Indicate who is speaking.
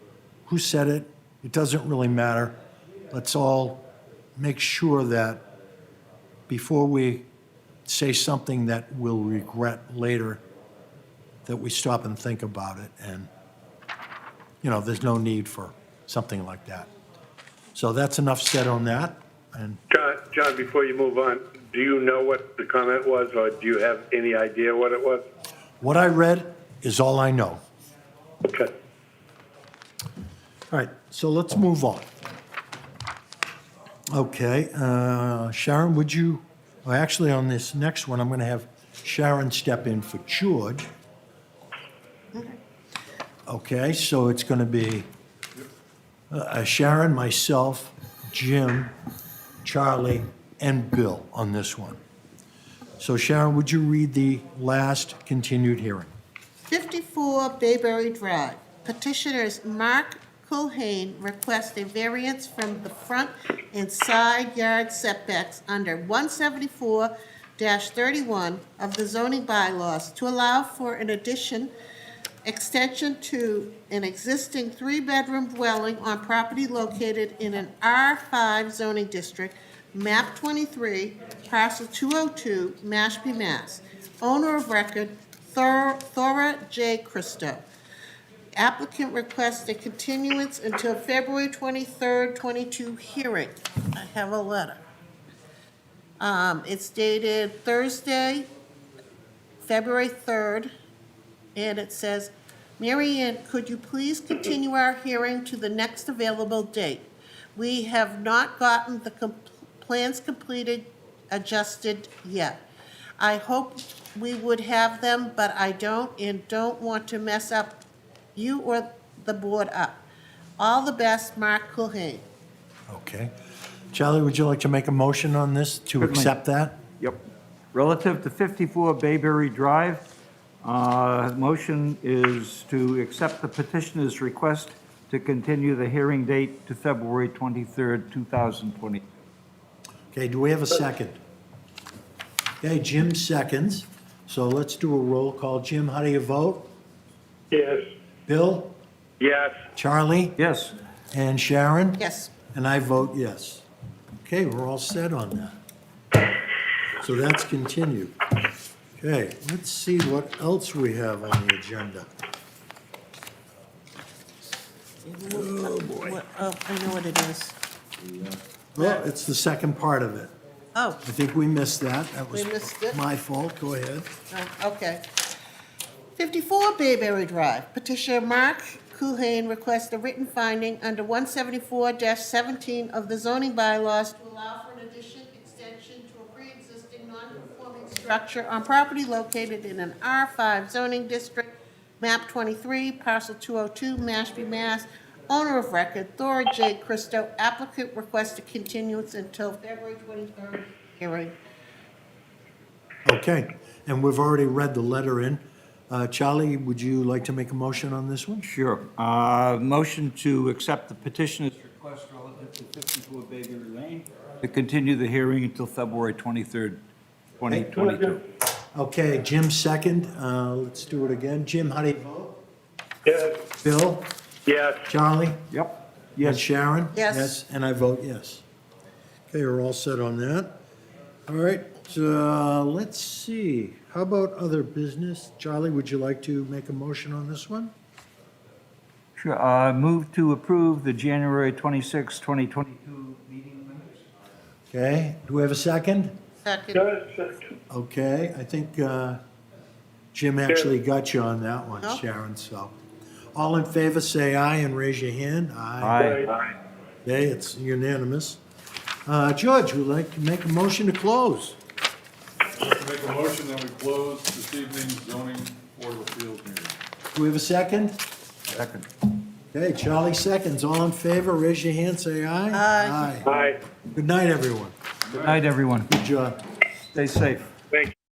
Speaker 1: who said it, it doesn't really matter. Let's all make sure that before we say something that we'll regret later, that we stop and think about it. And, you know, there's no need for something like that. So that's enough said on that. And
Speaker 2: John, John, before you move on, do you know what the comment was, or do you have any idea what it was?
Speaker 1: what I read is all I know.
Speaker 2: Okay.
Speaker 1: All right, so let's move on. Okay, uh, Sharon, would you, well, actually, on this next one, I'm going to have Sharon step in for George. Okay, so it's going to be uh, Sharon, myself, Jim, Charlie, and Bill on this one. So Sharon, would you read the last continued hearing?
Speaker 3: 54 Bayberry Drive. Petitioners Mark Culhane request a variance from the front and side yard setbacks under 174-31 of the zoning bylaws to allow for an addition extension to an existing three-bedroom dwelling on property located in an R5 zoning district, map 23, parcel 202, Mashpee, Mass. Owner of record, Thor- Thora J. Christo. Applicant requests a continuance until February 23rd, 22 hearing. I have a letter. Um, It's dated Thursday, February 3rd, and it says, "Mary Ann, could you please continue our hearing to the next available date? We have not gotten the com- plans completed, adjusted yet. I hope we would have them, but I don't and don't want to mess up you or the board up. All the best, Mark Culhane."
Speaker 1: Okay. Charlie, would you like to make a motion on this to
Speaker 4: Certainly.
Speaker 1: accept that?
Speaker 4: Yep. Relative to 54 Bayberry Drive, uh, motion is to accept the petitioner's request to continue the hearing date to February 23rd, 2020.
Speaker 1: Okay, do we have a second? Okay, Jim seconds, so let's do a roll call. Jim, how do you vote?
Speaker 2: Yes.
Speaker 1: Bill,
Speaker 2: Yes.
Speaker 1: Charlie,
Speaker 4: Yes,
Speaker 1: and Sharon?
Speaker 3: Yes,
Speaker 1: And I vote yes. Okay, we're all set on that. So that's continued. Okay, let's see what else we have on the agenda.
Speaker 3: What- oh, I know what it is.
Speaker 1: Well, it's the second part of it.
Speaker 3: Oh,
Speaker 1: I think we missed that. That was
Speaker 3: We missed it.
Speaker 1: my fault. Go ahead.
Speaker 3: Oh, Okay. 54 Bayberry Drive, petitioner Mark Kuhane requests a written finding under 174-17 of the zoning bylaws to allow for an addition, extension to a pre-existing non-conforming structure on property located in an R5 zoning district, map 23, parcel 202, Mashpee, Mass. Owner of record, Thora J. Christo, applicant requests a continuance until February 23rd hearing.
Speaker 1: Okay, and we've already read the letter in. Uh, Charlie, would you like to make a motion on this one?
Speaker 4: sure. Uh, Motion to accept the petitioner's request relative to 54 Bayberry Lane to continue the hearing until February 23rd, 2022.
Speaker 1: Okay, Jim second. Uh, Let's do it again. Jim, how do you vote?
Speaker 2: Yes.
Speaker 1: Bill,
Speaker 2: Yes.
Speaker 1: Charlie,
Speaker 4: Yep.
Speaker 1: and Sharon?
Speaker 3: Yes.
Speaker 1: And I vote yes. Okay, we're all set on that. All right, uh, let's see. How about other business? Charlie, would you like to make a motion on this one?
Speaker 4: Sure. Uh, Move to approve the January 26, 2022 meeting minutes.
Speaker 1: Okay, do we have a second?
Speaker 3: Second.
Speaker 2: Yes.
Speaker 1: Okay, I think uh, Jim actually got you on that one,
Speaker 3: No.
Speaker 1: Sharon, so. All in favor, say aye and raise your hand. Aye.
Speaker 4: Aye.
Speaker 1: Okay, it's unanimous. Uh, George, would like to make a motion to close?
Speaker 5: Make a motion that we close this evening's zoning board of appeals meeting.
Speaker 1: Do we have a second?
Speaker 4: Second.
Speaker 1: Okay, Charlie seconds. All in favor, raise your hand, say aye. Aye.
Speaker 2: Aye.
Speaker 1: Good night, everyone.
Speaker 4: Good night, everyone.
Speaker 1: Good job.
Speaker 4: Stay safe.
Speaker 2: Thank you.